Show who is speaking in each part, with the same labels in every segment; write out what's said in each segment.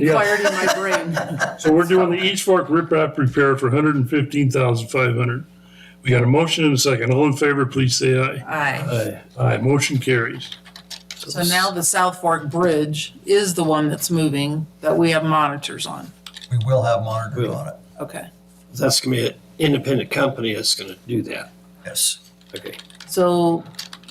Speaker 1: Yeah,
Speaker 2: fired in my brain.
Speaker 1: so we're doing the East Fork riprap repair for hundred and fifteen thousand five hundred. We got a motion and a second. All in favor, please say aye.
Speaker 2: Aye.
Speaker 3: Uh,
Speaker 1: Aye. Aye, motion carries.
Speaker 2: So now the South Fork Bridge is the one that's moving that we have monitors on.
Speaker 4: We will have monitors on it,
Speaker 2: Okay.
Speaker 3: That's gonna be an independent company that's gonna do that.
Speaker 4: yes.
Speaker 3: Okay.
Speaker 2: So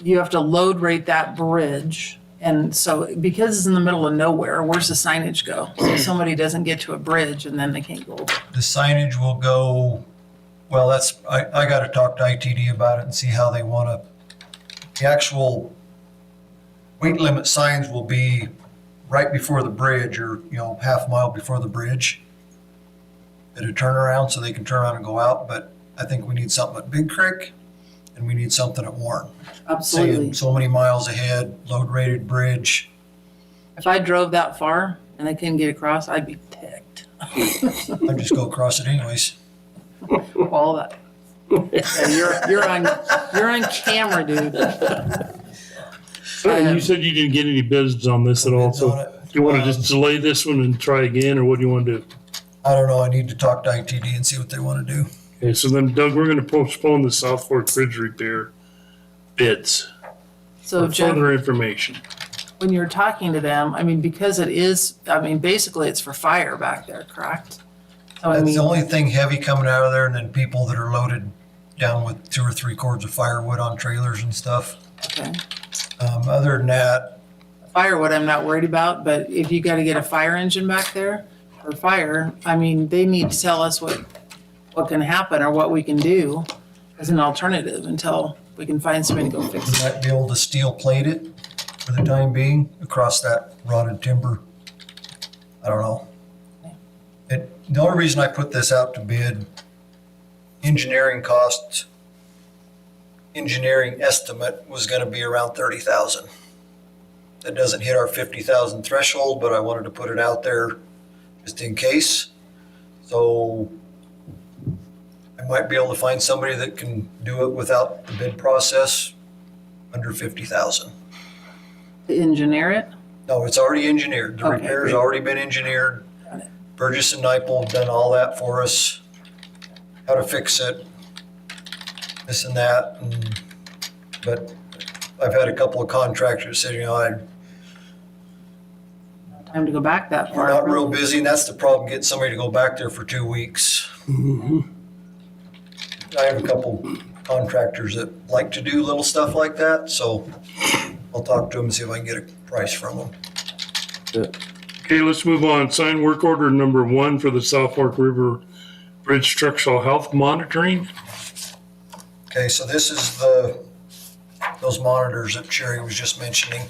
Speaker 2: you have to load rate that bridge. And so because it's in the middle of nowhere, where's the signage go? So somebody doesn't get to a bridge and then they can't go. over.
Speaker 4: The signage will go, well, that's, I, I gotta talk to ITD about it and see how they wanna, the actual weight limit signs will be right before the bridge or, you know, half mile before the bridge at a turnaround so they can turn around and go out, but I think we need something at Big Creek and we need something at Warren.
Speaker 2: Absolutely.
Speaker 4: Saying so many miles ahead, load rated bridge.
Speaker 2: If I drove that far and I couldn't get across, I'd be ticked.
Speaker 4: I just go across it anyways.
Speaker 2: All that. Yeah, You're, you're on, you're on camera, dude.
Speaker 1: And Uh, you said you didn't get any bids on this at all, so
Speaker 4: Bids on it.
Speaker 1: do you want to just delay this one and try again, or what do you want to do?
Speaker 4: I don't know. I need to talk to ITD and see what they want to do.
Speaker 1: Okay, so then Doug, we're gonna postpone the South Fork Bridge repair bids
Speaker 2: So
Speaker 1: for
Speaker 2: Jeff,
Speaker 1: further information.
Speaker 2: when you're talking to them, I mean, because it is, I mean, basically it's for fire back there, correct? So I
Speaker 4: That's
Speaker 2: mean,
Speaker 4: the only thing heavy coming out of there, and then people that are loaded down with two or three cords of firewood on trailers and stuff.
Speaker 2: okay.
Speaker 4: Um, other than that,
Speaker 2: firewood I'm not worried about, but if you gotta get a fire engine back there or fire, I mean, they need to tell us what, what can happen or what we can do as an alternative until we can find somebody to go fix
Speaker 4: we
Speaker 2: it.
Speaker 4: might be able to steel plate it for the time being across that rotted timber. I don't know. It, the only reason I put this out to bid, engineering costs, engineering estimate was going to be around thirty thousand. That doesn't hit our fifty thousand threshold, but I wanted to put it out there just in case. So I might be able to find somebody that can do it without the bid process under fifty thousand.
Speaker 2: To engineer it,
Speaker 4: No, it's already engineered. The
Speaker 2: Okay,
Speaker 4: repair's
Speaker 2: good.
Speaker 4: already been engineered. Burgess and Nyepel have done all that for us. How to fix it, this and that. and- But I've had a couple of contractors say, you know, I-
Speaker 2: time to go back that
Speaker 4: we're
Speaker 2: far.
Speaker 4: not real busy, and that's the problem, getting somebody to go back there for two weeks. I have a couple contractors that like to do little stuff like that, so I'll talk to them and see if I can get a price from them.
Speaker 1: Okay, let's move on. Sign work order number one for the South Fork River Bridge Structural Health Monitoring.
Speaker 4: Okay, so this is the, those monitors that Sherry was just mentioning.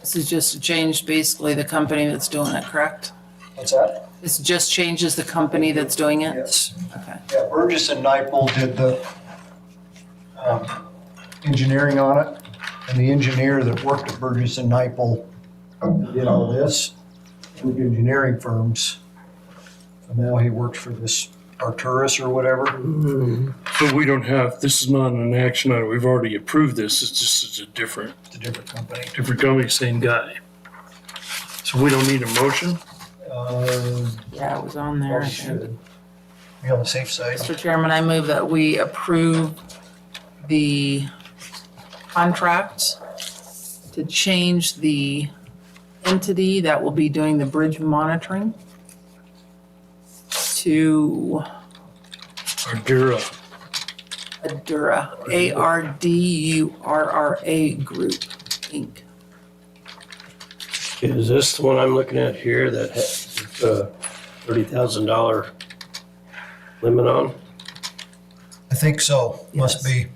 Speaker 2: This is just to change basically the company that's doing it, correct?
Speaker 4: What's that?
Speaker 2: This just changes the company that's doing it?
Speaker 4: Yes.
Speaker 2: Okay.
Speaker 4: Yeah, Burgess and Nyepel did the um, engineering on it, and the engineer that worked at Burgess and Nyepel um, did all this, with engineering firms. And now he works for this Arturus or whatever.
Speaker 1: But we don't have, this is not an action item. We've already approved this. It's just it's a different,
Speaker 4: It's a different company.
Speaker 1: different company, same guy. So we don't need a motion.
Speaker 4: Uh,
Speaker 2: Yeah, it was on there. I
Speaker 4: probably
Speaker 2: think.
Speaker 4: should Be on the safe side.
Speaker 2: Mr. Chairman, I move that we approve the contract to change the entity that will be doing the bridge monitoring to
Speaker 1: Ardura.
Speaker 2: Adura, A-R-D-U-R-R-A Group, Inc.
Speaker 3: Is this the one I'm looking at here that has uh thirty thousand dollar limit on?
Speaker 4: I think so, must
Speaker 2: Yes.
Speaker 4: be.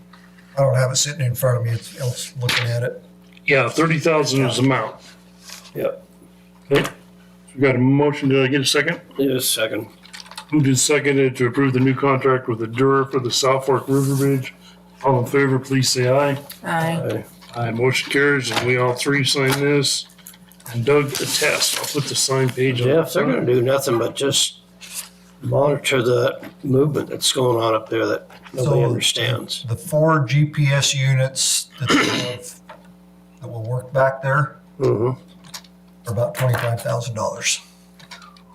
Speaker 4: I don't have it sitting in front of me, it's, it's looking at it.
Speaker 1: Yeah, thirty thousand is the amount.
Speaker 3: Yep.
Speaker 1: Okay. We got a motion. Did I get a second?
Speaker 3: Just a second.
Speaker 1: Moved and seconded to approve the new contract with Ardura for the South Fork River Bridge. All in favor, please say aye.
Speaker 2: Aye.
Speaker 3: I-
Speaker 1: Aye, motion carries, and we all three sign this. And Doug attests, I'll put the signed page on.
Speaker 3: Jeff, they're gonna do nothing but just monitor the movement that's going on up there that nobody
Speaker 4: So-
Speaker 3: understands.
Speaker 4: the four GPS units that they have that will work back there
Speaker 3: Mm-hmm.
Speaker 1: Uh-huh.
Speaker 4: are about twenty-five thousand dollars.